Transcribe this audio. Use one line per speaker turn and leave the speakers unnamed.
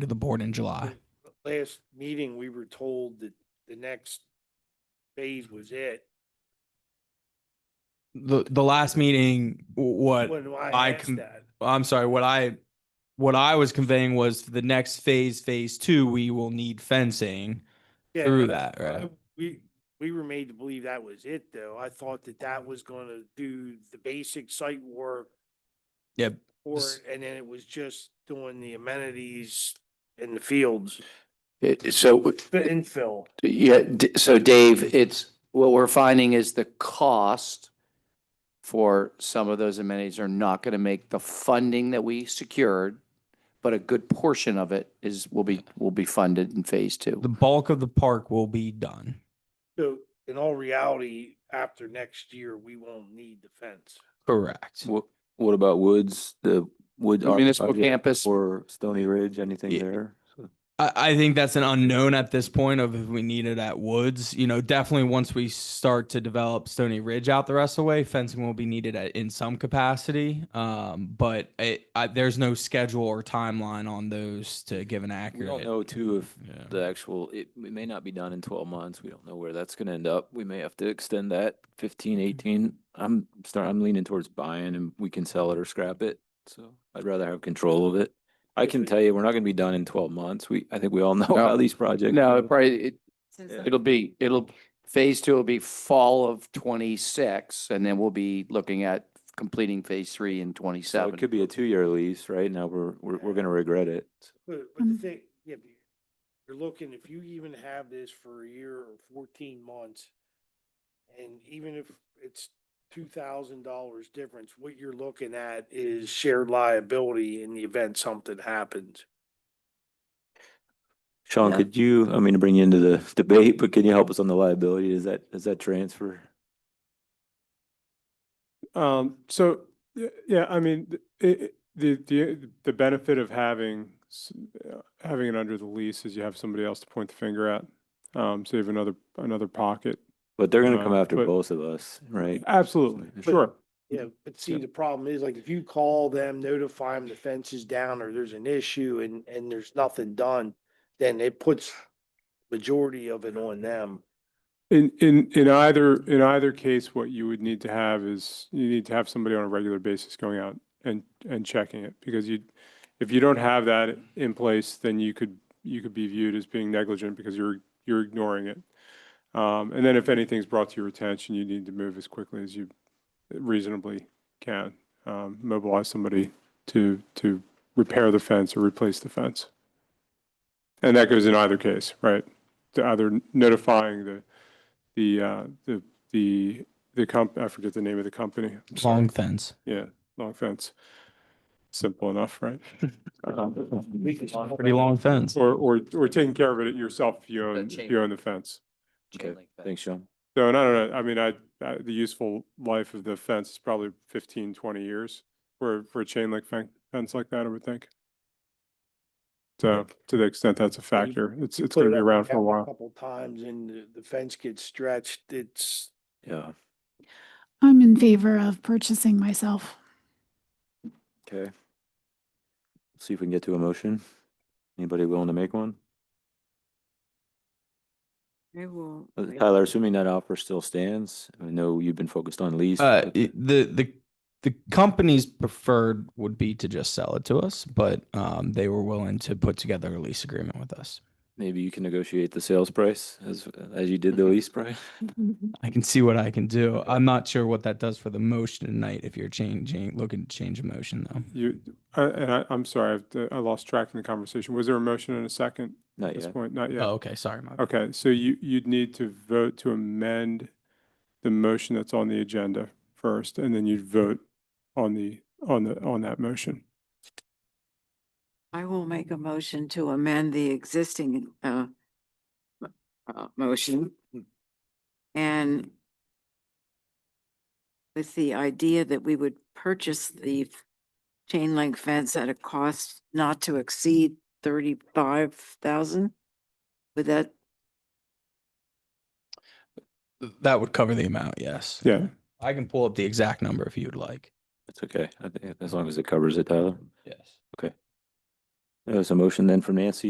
to the board in July.
Last meeting, we were told that the next phase was
Mm-hmm.
it.
The, the last meeting, w- what,
When
I
I asked
com-
that,
I'm sorry, what I, what I was conveying was the next phase, phase two, we will need fencing
Yeah,
through
but
that, right?
I- We, we were made to believe that was it though. I thought that that was gonna do the basic site work
Yep.
for
This-
it, and then it was just doing the amenities in the fields,
It, so,
fit and fill.
yeah, D- so Dave, it's, what we're finding is the cost for some of those amenities are not going to make the funding that we secured, but a good portion of it is, will be, will be funded in phase two.
The bulk of the park will be done.
So in all reality, after next year, we won't need the fence.
Correct.
What, what about Woods, the Wood? Army
Municipal
project
campus.
Or Stony Ridge, anything
Yeah.
there?
I, I think that's an unknown at this point of if we need it at Woods. You know, definitely once we start to develop Stony Ridge out the rest of the way, fencing will be needed at, in some capacity. Um, but it, I, there's no schedule or timeline on those to give an
We
accurate.
don't know too if
Yeah.
the actual, it, it may not be done in twelve months. We don't know where that's gonna end up. We may have to extend that 15, 18. I'm start, I'm leaning towards buying and we can sell it or scrap it. So I'd rather have control of it. I can tell you, we're not gonna be done in twelve months. We, I think we all know
No.
how these projects.
No,
go.
it probably, it,
Since
Yeah.
the-
it'll be, it'll, phase two will be fall of twenty-six, and then we'll be looking at completing phase three in
So
twenty-seven.
it could be a two-year lease, right? Now we're, we're, we're gonna regret it.
But, but
Mm-hmm.
the
Mm.
thing, yeah, but you're looking, if you even have this for a year or fourteen months, and even if it's two thousand dollars difference, what you're looking at is shared liability in the event something happens.
Sean,
Yeah.
could you, I mean, to bring you into the debate, but can you help us on the liability? Is that, is that transfer?
Um, so, y- yeah, I mean, th- i- i- the, the, the benefit of having, s- uh, having it under the lease is you have somebody else to point the finger at. Um, so you have another, another pocket.
But they're gonna come
Uh,
after
but-
both of us, right?
Absolutely,
But-
sure.
Yeah, but see, the problem is like if you call them, notify them the fence is down or there's an issue and, and there's nothing done, then it puts majority of it on them.
In, in, in either, in either case, what you would need to have is, you need to have somebody on a regular basis going out and, and checking it. Because you, if you don't have that in place, then you could, you could be viewed as being negligent because you're, you're ignoring it. Um, and then if anything's brought to your attention, you need to move as quickly as you reasonably can. Um, mobilize somebody to, to repair the fence or replace the fence. And that goes in either case, right? To either notifying the, the, uh, the, the, the comp, I forget the name of the company. I'm sorry.
Long fence.
Yeah, long fence. Simple enough, right?
Pretty long fence.
Or, or, or taking care of it yourself if you own, if
chain
you
link.
own the fence.
Chain
Okay,
link fence.
Thanks, Sean.
So, and I don't know, I mean, I, I- the useful life of the fence is probably 15, 20 years for, for a chain link fen- fence like that, I would think. So to the extent that's a
Yeah, you-
factor, it's,
you
it's
put
going
it
to be
up
around for a
against
while.
Couple times and the- the fence gets stretched, it's,
Yeah,
I'm in favor of purchasing myself.
okay. See if we can get to a motion. Anybody willing to make one?
I will.
Uh, Tyler, assuming that offer still stands, I know you've been focused on lease.
Uh,
but-
it- the, the, the company's preferred would be to just sell it to us, but, um, they were willing to put together a lease agreement with us.
Maybe you can negotiate the sales price as, as you did the
Mm-hmm.
lease price.
I can see what I can do. I'm not sure what that does for the motion tonight. If you're changing, looking to change a motion though.
You, I- and I, I'm sorry, I've- I lost track in the conversation. Was there a motion and a second
Not
at this
yet.
point? Not yet.
Oh, okay. Sorry. My bad.
Okay, so you, you'd need to vote to amend the motion that's on the agenda first, and then you'd vote on the, on the, on that motion.
I will make a motion to amend the existing uh m- uh, motion. And with the idea that we would purchase the f- chain link fence at a cost not to exceed thirty-five thousand? Would that,
Th- That would cover the amount, yes.
Yeah.
I can pull up the exact number if you would like.
It's okay. I think as long as it covers it, Tyler.
Yes.
There's a motion then from Nancy